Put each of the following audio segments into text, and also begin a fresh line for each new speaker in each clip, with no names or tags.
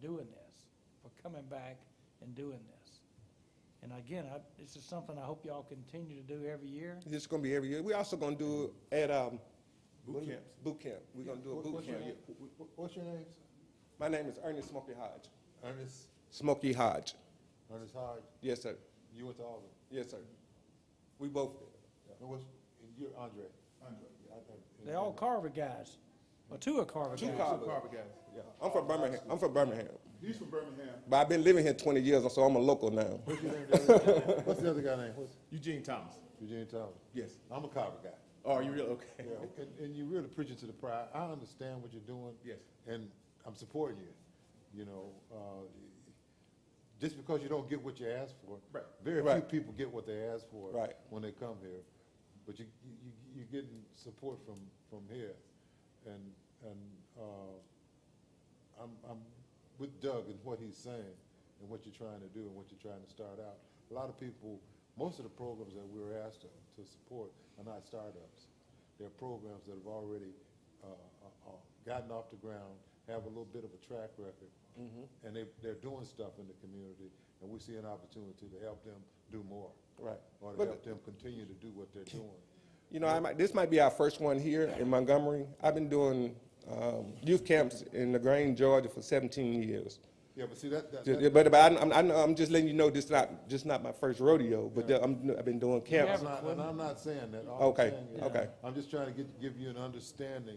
doing this, for coming back and doing this. And again, I, this is something I hope y'all continue to do every year.
This is gonna be every year. We also gonna do it at, um.
Boot
what do we-
camps.
Boot camp. We're gonna do a
What-
boot
what's your
camp.
name? Wh- wh- What's your name?
My name is Ernest Smokey Hodge.
Ernest,
Smokey Hodge.
Ernest Hodge,
Yes, sir.
you went to Auburn.
Yes, sir. We both did.
And what's, and you're Andre? Andre.
They're all Carver guys, or two are Carver
Two
guys.
Carver.
guys. Yeah.
I'm from Birmingham. I'm from Birmingham.
He's from Birmingham.
But I've been living here twenty years, so I'm a local now.
What's your name? the other- What's the other guy name? What's
Eugene Thomas.
Eugene Thomas?
Yes.
I'm a Carver guy.
Oh, you really, okay.
Yeah, and, and you're really preaching to the pride. I understand what you're doing.
Yes.
And I'm supporting you, you know, uh, just because you don't get what you asked for.
Right.
Very few
Right.
people get what they ask for.
Right.
When they come here, but you, you, you're getting support from, from here. And, and, uh, I'm, I'm with Doug and what he's saying and what you're trying to do and what you're trying to start out. A lot of people, most of the programs that we were asked to, to support are not startups. They're programs that have already, uh, uh, uh, gotten off the ground, have a little bit of a track record.
Mm-hmm.
And they, they're doing stuff in the community and we see an opportunity to help them do more.
Right.
Or to
But-
help them continue to do what they're doing.
You know, I might, this might be our first one here in Montgomery. I've been doing, um, youth camps in LaGrange, Georgia for seventeen years.
Yeah, but see, that, that,
Ju-
that-
But, but I'm, I'm, I'm just letting you know, this not, just not my first rodeo, but I'm, I've been doing
I'm
camps.
not, and I'm not saying that. All I'm
Okay,
saying is,
okay.
I'm just trying to get, give you an understanding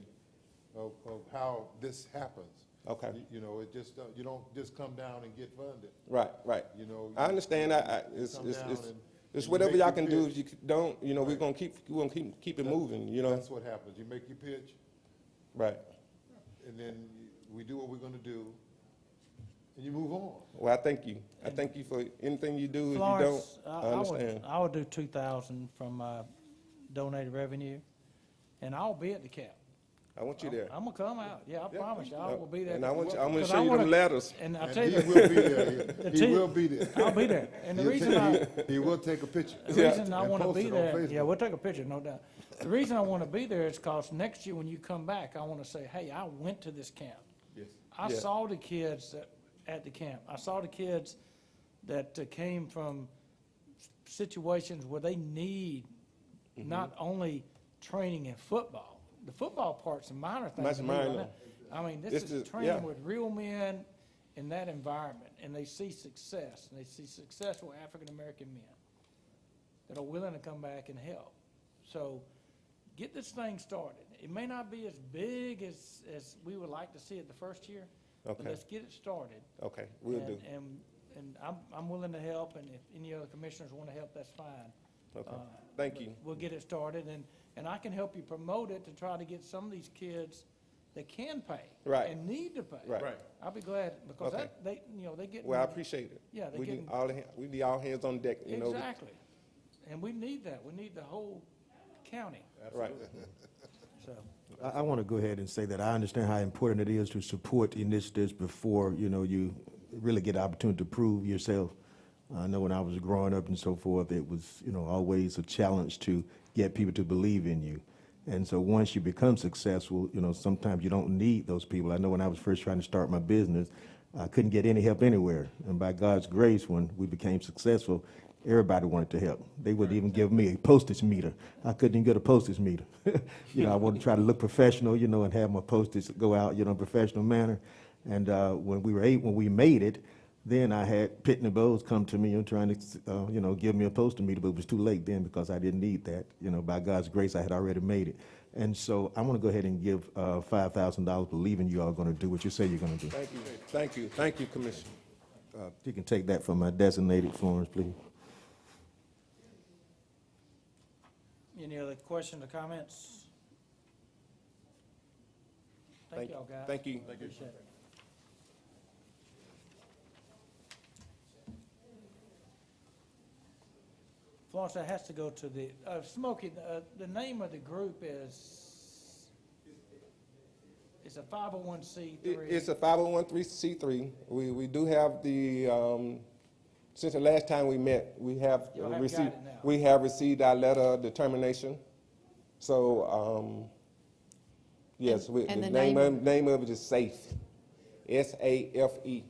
of, of how this happens.
Okay.
You- You know, it just, uh, you don't just come down and get funded,
Right, right.
you know.
I understand, I, I, it's,
Come
it's,
down
it's,
and-
it's
and
whatever
make
y'all
your
can do,
pitch.
if you c- don't, you know, we're gonna keep, we're gonna keep, keep it moving, you know?
That's what happens. You make your pitch,
Right.
and then we do what we're gonna do, and you move on.
Well, I thank you. I thank you for anything you do, if you don't,
Florence,
I
I would,
understand.
I would do two thousand from my donated revenue, and I'll be at the cap.
I want you there.
I'm gonna come out, yeah, I promise you, I will be there.
And I want you, I'm gonna
Because
show you
wanna-
them letters.
And I
And
tell
He
you,
will be there. He
two-
will be there.
I'll be there, and the
He'll
reason
take-
I,
he- He will take a picture.
The reason I
And
want to
post
be
it on
there, yeah,
Facebook.
we'll take a picture, no doubt. The reason I want to be there is because next year when you come back, I want to say, hey, I went to this camp.
Yes.
I
Yeah.
saw the kids that, at the camp. I saw the kids that uh, came from s- situations where they need
Mm-hmm.
not only training in football. The football part's a minor thing.
Much
to me right
minor.
now. I mean, this
This
is
is- yeah.
training with real men in that environment, and they see success, and they see successful African-American men that are willing to come back and help. So get this thing started. It may not be as big as, as we would like to see it the first year, but
Okay.
let's get it started.
Okay, we'll do.
And- And, and I'm, I'm willing to help, and if any other commissioners want to help, that's fine.
Okay.
Uh,
Thank
but
you.
We'll get it started, and, and I can help you promote it to try to get some of these kids that can pay.
Right.
And need to pay.
Right.
Right.
I'll be glad, because
Okay.
that, they, you know, they get.
Well, I appreciate it.
Yeah, they
We need
getting-
all, ha- we need all hands on deck, you know?
Exactly. And we need that. We need the whole county,
Right.
so.
I, I want to go ahead and say that I understand how important it is to support initiatives before, you know, you really get an opportunity to prove yourself. I know when I was growing up and so forth, it was, you know, always a challenge to get people to believe in you. And so once you become successful, you know, sometimes you don't need those people. I know when I was first trying to start my business, I couldn't get any help anywhere. And by God's grace, when we became successful, everybody wanted to help. They wouldn't even give me a postage meter. I couldn't even get a postage meter. you know, I wanted to try to look professional, you know, and have my postage go out, you know, in a professional manner. And uh, when we were eight, when we made it, then I had Pitt and Bowes come to me and trying to, uh, you know, give me a postage meter, but it was too late then because I didn't need that. You know, by God's grace, I had already made it. And so I want to go ahead and give uh, $5,000 believing you all are going to do what you say you're going to do.
Thank you, thank you, thank you, Commissioner.
Uh, If you can take that from my designated Florence, please.
Any other questions or comments? Thank y'all, guys.
Thank you.
Appreciate it. Florence, that has to go to the, uh, Smokey, uh, the name of the group is, it's a five oh one C
It-
three.
It's a 501c3. We, we do have the, um, since the last time we met, we have
Y'all haven't got
received,
it now.
we have received our letter of determination. So, um, yes, we- the
and the
name
name
of, name of it is SAFE, S-A-F-E,